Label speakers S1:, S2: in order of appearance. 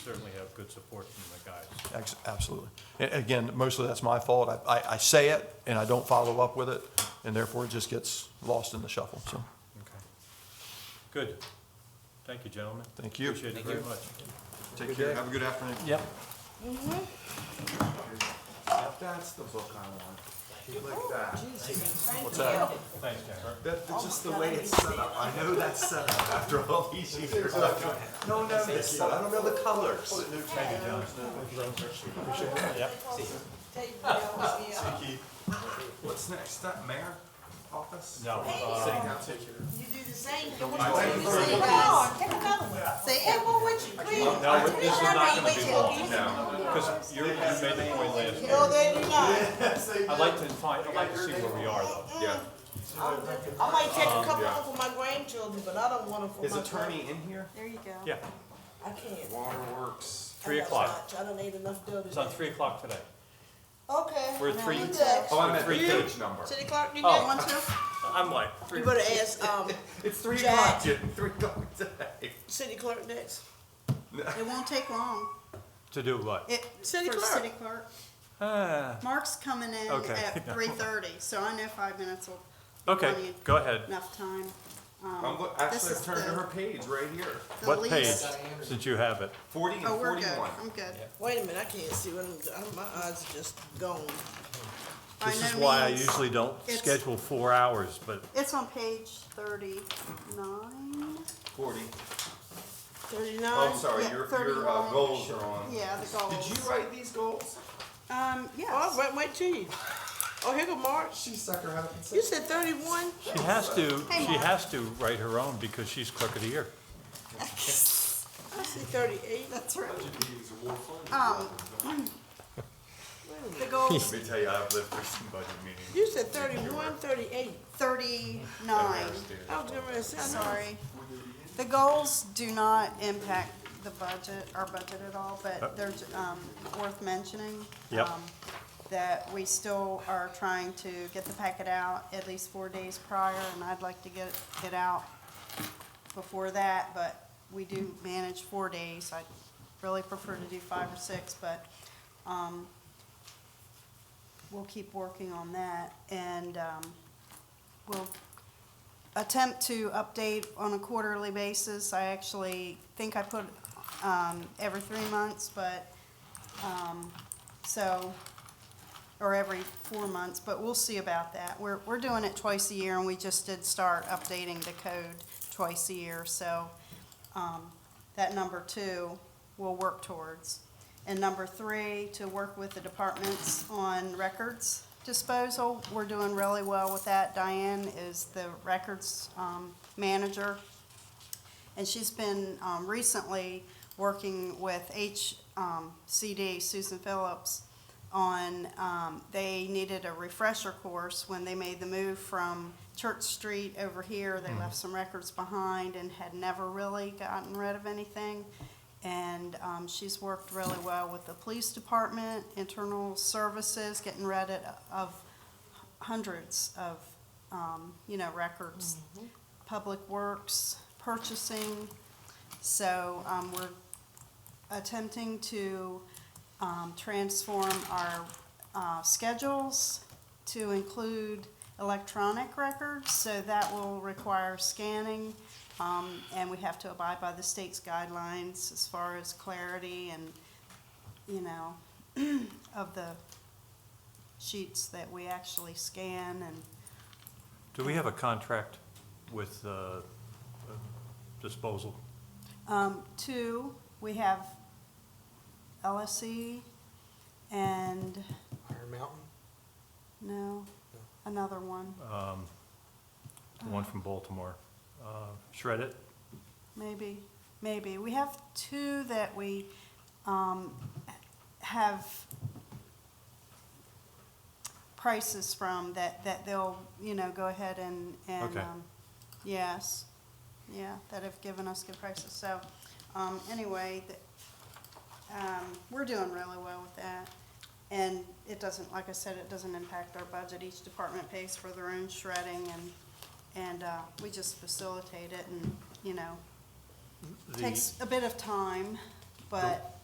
S1: certainly have good support from the guys.
S2: Ex- Absolutely. A- Again, mostly that's my fault. I- I, I say it and I don't follow up with it, and therefore it just gets lost in the shuffle, so.
S1: Okay. Good. Thank you, gentlemen.
S2: Thank you.
S1: Appreciate it very much.
S2: Take care. Have a good afternoon.
S1: Yep.
S3: That's the book I want. Like
S4: Oh,
S3: that.
S2: What's that?
S1: Thanks, Jennifer.
S3: That, that's just the way it's set up. I know that's set up after all these years. No, no, it's set up. I don't know the
S4: Oh,
S3: colors. What's next? That mayor office?
S1: No, uh,
S3: Sitting down, take your.
S5: You do the same, you want to do the same. Come on, take another one. Say, hey, what would you, please?
S1: no, this is not gonna be long,
S3: No.
S1: because you you made the point last
S5: No,
S1: night.
S5: they do not.
S1: I'd like to find, I'd like to see where we are, though.
S3: Yeah.
S5: I might take a couple of them for my grandchildren, but I don't want them for my.
S3: Is attorney in here?
S4: There you go.
S1: Yeah,
S5: I can't.
S3: Waterworks.
S1: three o'clock.
S5: I don't need enough dough
S1: It's on
S5: today.
S1: three o'clock today.
S5: Okay.
S1: We're three-
S5: You good?
S3: Oh, I meant the
S1: Three.
S3: page number.
S5: City clerk, you
S1: Oh.
S5: got one too?
S1: I'm like, three,
S5: You better ask, um,
S3: It's three
S5: Jack.
S3: o'clock, Jen. Three o'clock today.
S5: city clerk next.
S4: It won't take long.
S1: to do what?
S4: It,
S5: City
S4: for
S5: clerk.
S4: city clerk.
S1: Ah,
S4: Mark's coming in
S1: Okay.
S4: at three thirty, so I know five minutes will run
S1: Okay,
S4: you
S1: go ahead.
S4: enough time. Um,
S3: I'm, look-
S4: this
S3: actually,
S4: is
S3: I've turned to
S4: the-
S3: her page right here.
S4: the
S1: What page,
S4: least-
S1: since you have it?
S3: Forty and
S4: Oh, we're good.
S3: forty-one.
S4: I'm good.
S5: Wait a minute, I can't see what I'm, I- my eyes are just gone.
S4: By
S1: This is
S4: no
S1: why I
S4: means-
S1: usually don't
S4: it's-
S1: schedule four hours, but
S4: It's on page thirty-nine.
S3: Forty. Oh, I'm
S5: Thirty-nine?
S3: sorry,
S4: yeah,
S3: your, your uh,
S4: 31.
S3: goals are on.
S4: Yeah, the goals.
S3: Did you write these goals?
S4: Um,
S5: Oh,
S4: yes.
S5: wait, wait till you. Oh, here go March.
S3: She sucker out and
S5: You
S3: said.
S5: said thirty-one?
S1: she has to,
S4: Hey,
S1: she
S4: Mark.
S1: has to write her own because she's clerk of the year.
S5: I see thirty-eight.
S4: That's right. Um, the goals,
S3: Let me tell you, I've lived through some budget meetings.
S5: You said thirty-one, thirty-eight.
S4: thirty-nine.
S5: I was gonna say, I know.
S4: Sorry. The goals do not impact the budget, our budget at all, but they're, um, worth mentioning.
S1: Yep.
S4: um, That we still are trying to get the packet out at least four days prior, and I'd like to get it out before that, but we do manage four days. I really prefer to do five or six, but, um, we'll keep working on that, and, um, we'll attempt to update on a quarterly basis. I actually think I put um, every three months, but, um, so, or every four months, but we'll see about that. We're, we're doing it twice a year, and we just did start updating the code twice a year, so um, that number two we'll work towards. And number three, to work with the departments on records disposal. We're doing really well with that. Diane is the records um, manager. And she's been um, recently working with HCD, Susan Phillips, on, um, they needed a refresher course when they made the move from Church Street over here. They left some records behind and had never really gotten rid of anything. And um, she's worked really well with the police department, internal services, getting rid of hundreds of, um, you know, records. Public Works, purchasing. So um, we're attempting to um, transform our uh, schedules to include electronic records, so that will require scanning, um, and we have to abide by the state's guidelines as far as clarity and, you know, of the sheets that we actually scan and
S1: Do we have a contract with uh, disposal?
S4: Um, two, we have LSE and,
S6: Iron Mountain?
S4: no, another one,
S1: The one from Baltimore. Uh, Shred it?
S4: maybe, maybe. We have two that we, um, have prices from that, that they'll, you know, go ahead and, and,
S1: Okay.
S4: um, yes, yeah, that have given us good prices. So, um, anyway, th- um, we're doing really well with that. And it doesn't, like I said, it doesn't impact our budget. Each department pays for their own shredding and, and, uh, we just facilitate it and, you know,
S1: The-
S4: takes a bit of time, but